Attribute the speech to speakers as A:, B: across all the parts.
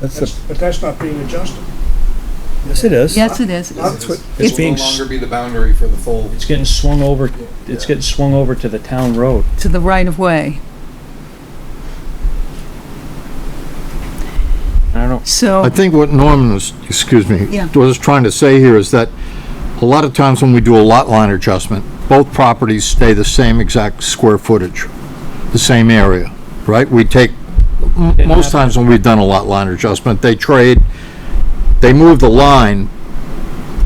A: That's
B: That's-
A: the,
B: But that's not being adjusted.
A: yes, it is.
C: Yes, it is.
B: That's what-
D: It
A: It's
D: will
A: being,
D: no
A: s-
D: longer be the boundary for the full.
A: it's getting swung over, it's getting swung over to the town road.
C: To the right of way.
A: I don't,
C: So,
E: I think what Norman was, excuse me,
C: Yeah.
E: was trying to say here is that a lot of times when we do a lot line adjustment, both properties stay the same exact square footage, the same area, right? We take, m- most times when we've done a lot line adjustment, they trade, they move the line,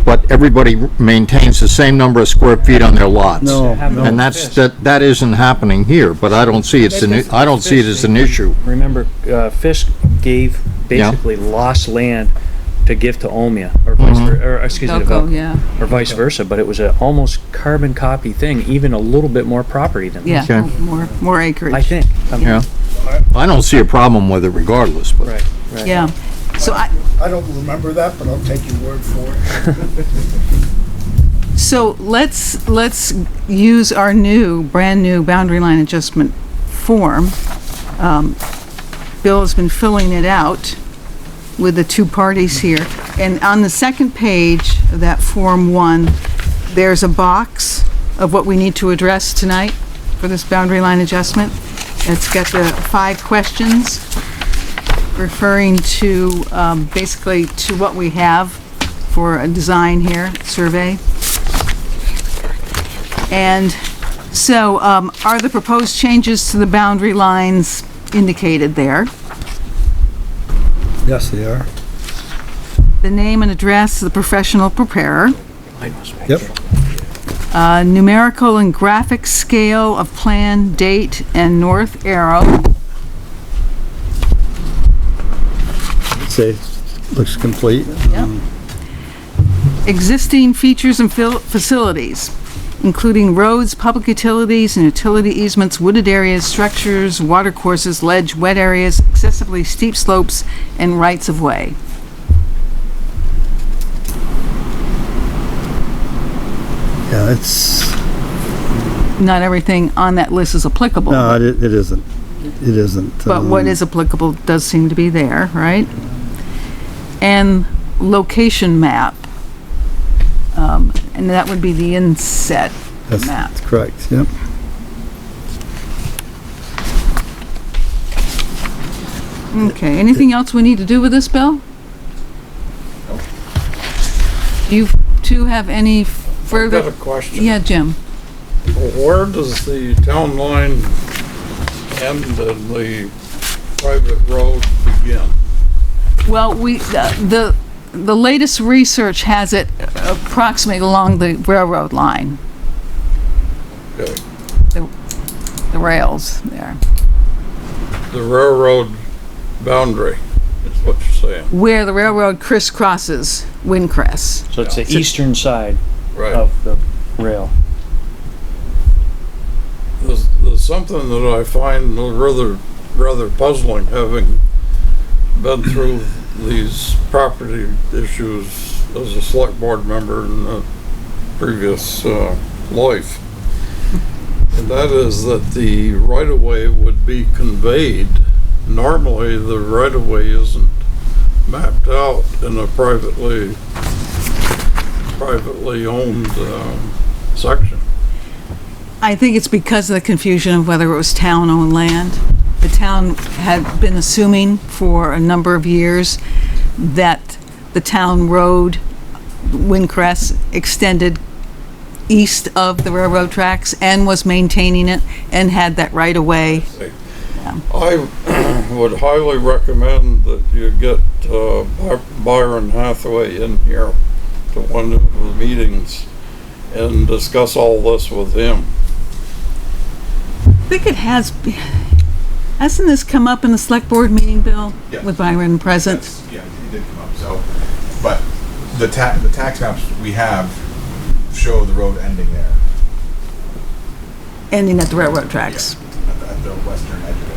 E: but everybody maintains the same number of square feet on their lots.
A: no,
E: And
A: no.
E: that's, that, that isn't happening here, but I don't see it's an, i- I don't see it as an issue.
A: Remember, uh, Fisk gave, basically lost land to give to Omea, or vice,
E: Mm-hmm.
A: ver- or, excuse me, to
C: Velco,
A: Velco.
C: yeah,
A: or vice versa, but it was a almost carbon copy thing, even a little bit more property than this.
C: yeah,
E: Okay.
C: more, more
A: I
C: acreage,
A: think. I'm-
E: Yeah. I don't see a problem with it regardless, but.
A: Right, right.
C: yeah. So I,
B: I don't remember that, but I'll take your word for it.
C: So let's, let's use our new, brand-new boundary line adjustment form. Um, Bill has been filling it out with the two parties here. And on the second page of that Form 1, there's a box of what we need to address tonight for this boundary line adjustment. It's got the five questions referring to, um, basically, to what we have for a design here, survey. And so um, are the proposed changes to the boundary lines indicated there?
F: Yes, they are.
C: The name and address of the professional preparer,
F: Yep.
C: uh, numerical and graphic scale of plan, date, and north arrow,
F: Say, looks complete.
C: existing features and fil- facilities, including roads, public utilities, and utility easements, wooded areas, structures, water courses, ledge, wet areas, excessively steep slopes, and rights of way.
F: Yeah, it's,
C: Not everything on that list is applicable.
F: no, it it isn't. It isn't.
C: But what
F: um,
C: is applicable does seem to be there, right? And location map. Um, And that would be the inset
F: that's-
C: map.
F: That's correct, yep.
C: Okay, anything else we need to do with this, Bill? Do you two have any
G: I've got a
C: further?
G: question.
C: Yeah, Jim?
G: Where does the town line end and the private road begin?
C: Well, we, the, the- the latest research has it approximately along the railroad line,
G: Okay.
C: the rails there,
G: The railroad boundary is what you're saying,
C: where the railroad crisscrosses Windcrest.
A: So it's the eastern side
G: right?
A: of the rail.
G: There's, there's something that I find rather, rather puzzling, having been through these property issues as a select board member in a previous, uh, life. And that is that the right-of-way would be conveyed. Normally, the right-of-way isn't mapped out in a privately, privately owned, um, section.
C: I think it's because of the confusion of whether it was town-owned land. The town had been assuming for a number of years that the town road, Windcrest, extended east of the railroad tracks and was maintaining it and had that right-of-way.
G: I would highly recommend that you get uh, By- Byron Hathaway in here to one of the meetings and discuss all this with him.
C: I think it has, hasn't this come up in the select board meeting, Bill?
H: Yeah.
C: With Byron present?
H: That's- Yeah, it did come up, so, but the ta, the tax maps we have show the road ending there,
C: Ending at the railroad tracks.
H: at the- at the western edge of it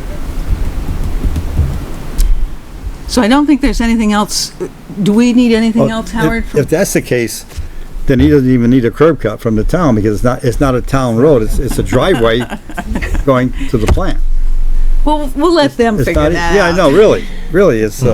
H: there.
C: So I don't think there's anything else. Do we need anything
F: Well,
C: else,
F: if-
C: Howard? from-
F: If that's the case, then he doesn't even need a curb cut from the town because it's not, it's not a town road. It's, it's a driveway going to the plant.
C: Well, we'll let them
F: It's
C: figure
F: not. e-
C: that out.
F: Yeah, I know, really, really, it's, uh,